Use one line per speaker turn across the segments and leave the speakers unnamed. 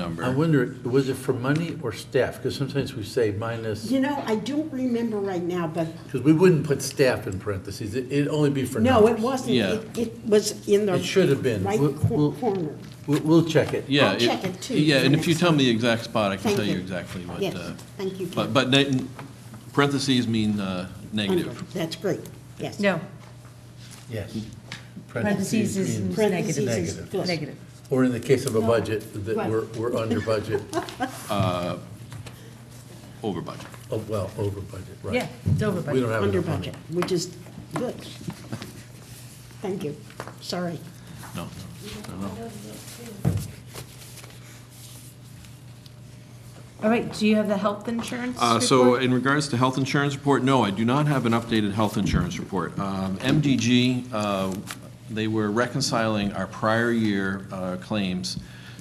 I
number.
wonder, was it for money or staff? Because sometimes we say minus,
You know, I don't remember right now, but
because we wouldn't put staff in parentheses. It- It'd only be for
no, it
numbers.
wasn't.
Yeah.
It- It was in the.
It should have been.
Right
We'll- we'll-
cor- corner.
We'll, we'll check it.
Yeah.
I'll check it, too,
Yeah,
for
and if you
next
tell me the exact spot, I can
Thank
tell
you.
you exactly what.
Yes,
uh,
thank you,
But,
Kim.
but ne- parentheses mean uh, negative.
That's great, yes.
No,
Yes.
parentheses is
means-
Parentheses
negative.
is
Negative.
plus.
Negative.
Or in the case of a budget, that
Right.
we're, we're under budget,
Over budget.
oh, well, over budget, right.
Yeah, it's over
We don't
budget.
have
Under
enough money.
budget, which is good. Thank you, sorry.
No, no, no, no.
All right, do you have the health insurance
Uh, So
report?
in regards to health insurance report, no, I do not have an updated health insurance report. Um, MDG, uh, they were reconciling our prior year uh, claims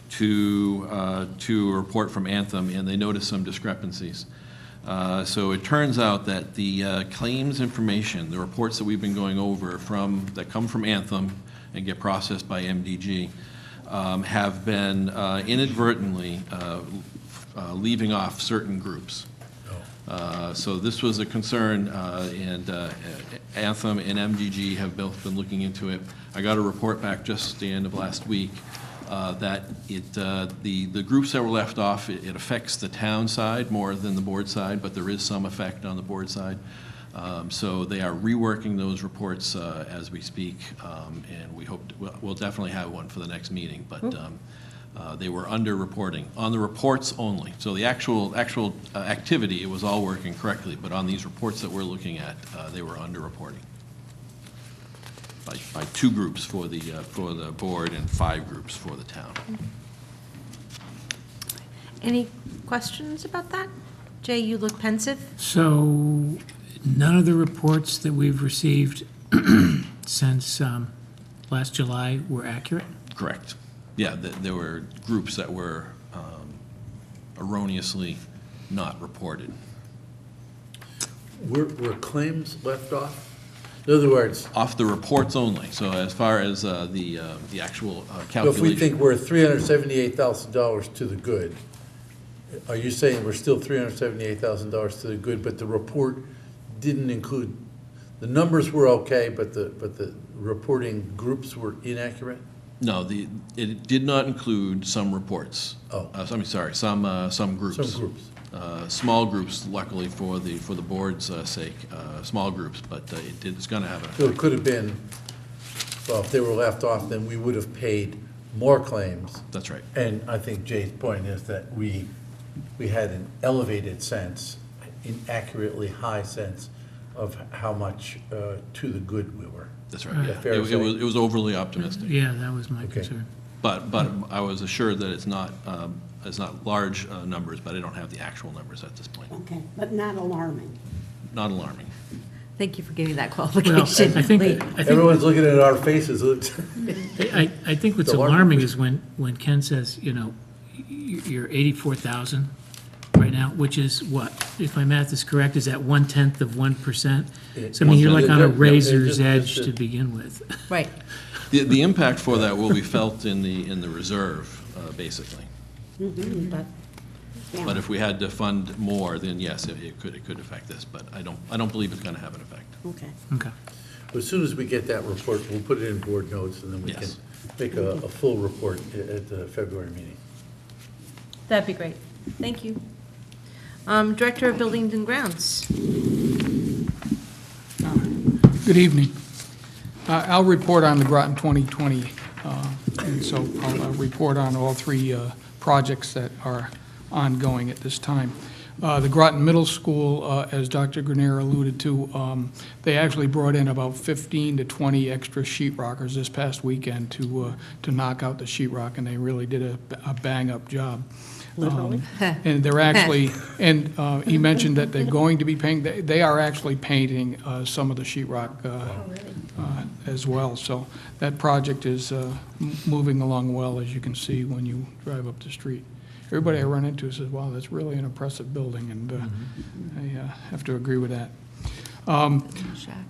to, uh, to a report from Anthem, and they noticed some discrepancies. Uh, So it turns out that the uh, claims information, the reports that we've been going over from, that come from Anthem and get processed by MDG, um, have been uh, inadvertently uh, uh, leaving off certain groups. Uh, So this was a concern, uh, and uh, Anthem and MDG have both been looking into it. I got a report back just the end of last week uh, that it, uh, the, the groups that were left off, it it affects the town side more than the board side, but there is some effect on the board side. Um, So they are reworking those reports uh, as we speak, um, and we hope, we'll- we'll definitely have one for the next meeting, but um, uh, they were under-reporting, on the reports only. So the actual, actual uh, activity, it was all working correctly, but on these reports that we're looking at, uh, they were under-reporting by, by two groups for the, uh, for the board and five groups for the town.
Any questions about that? Jay, you look pensive.
So none of the reports that we've received since um, last July were accurate?
Correct. Yeah, th- there were groups that were um, erroneously not reported.
Were, were claims left off? In other words,
Off the reports only, so as far as uh, the, uh, the actual uh,
so if we
calculation.
think we're three hundred seventy-eight thousand dollars to the good, are you saying we're still three hundred seventy-eight thousand dollars to the good, but the report didn't include, the numbers were okay, but the, but the reporting groups were inaccurate?
No, the, it did not include some reports.
Oh.
Uh, I'm sorry, some, uh, some groups.
Some groups.
Uh, Small groups luckily for the, for the board's uh, sake, uh, small groups, but uh, it did, it's going to have an
So it could have been, well, if they were left off, then we would have paid more claims.
That's right.
And I think Jay's point is that we, we had an elevated sense, inaccurately high sense of how much uh, to the good we were.
That's right, yeah.
Fair
It it
say.
was, it was overly optimistic.
Yeah, that was my
Okay.
concern.
But, but I was assured that it's not, um, it's not large uh, numbers, but I don't have the actual numbers at this point.
Okay, but not alarming.
Not alarming.
Thank you for giving that
Well, I
qualification. Lee.
think, I think,
Everyone's looking at our faces.
I, I think what's
The alarm-
alarming is when, when Ken says, you know, y- you're 84,000 right now, which is what? If my math is correct, is that one-tenth of 1%? So I mean, you're like on
Yeah,
a
yeah, yeah,
razor's
yeah, yeah,
edge
yeah.
to begin with.
Right.
The, the impact for that will be felt in the, in the reserve, uh, basically.
Mhm, But, yeah.
But if we had to fund more, then yes, it it could, it could affect this, but I don't, I don't believe it's going to have an effect.
Okay,
Okay.
As soon as we get that report, we'll put it in board notes, and then we can
Yes.
make a, a full report a- at the February meeting.
That'd be great. Thank you. Um, Director of Buildings and Grounds.
Good evening. Uh, I'll report on the Groton 2020, uh, and so I'll uh, report on all three uh, projects that are ongoing at this time. Uh, The Groton Middle School, uh, as Dr. Grenier alluded to, um, they actually brought in about 15 to 20 extra sheet rockers this past weekend to, uh, to knock out the sheet rock, and they really did a- a bang-up job. Literally. And they're actually, and uh, he mentioned that they're going to be painting, they- they are actually painting uh, some of the sheet rock uh, uh, as well. So that project is uh, m- moving along well, as you can see when you drive up the street. Everybody I run into says, wow, that's really an impressive building, and uh, I uh, have to agree with that.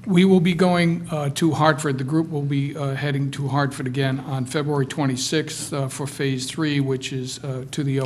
We will be going uh, to Hartford. The group will be uh, heading to Hartford again on February 26th uh, for Phase 3, which is uh, to the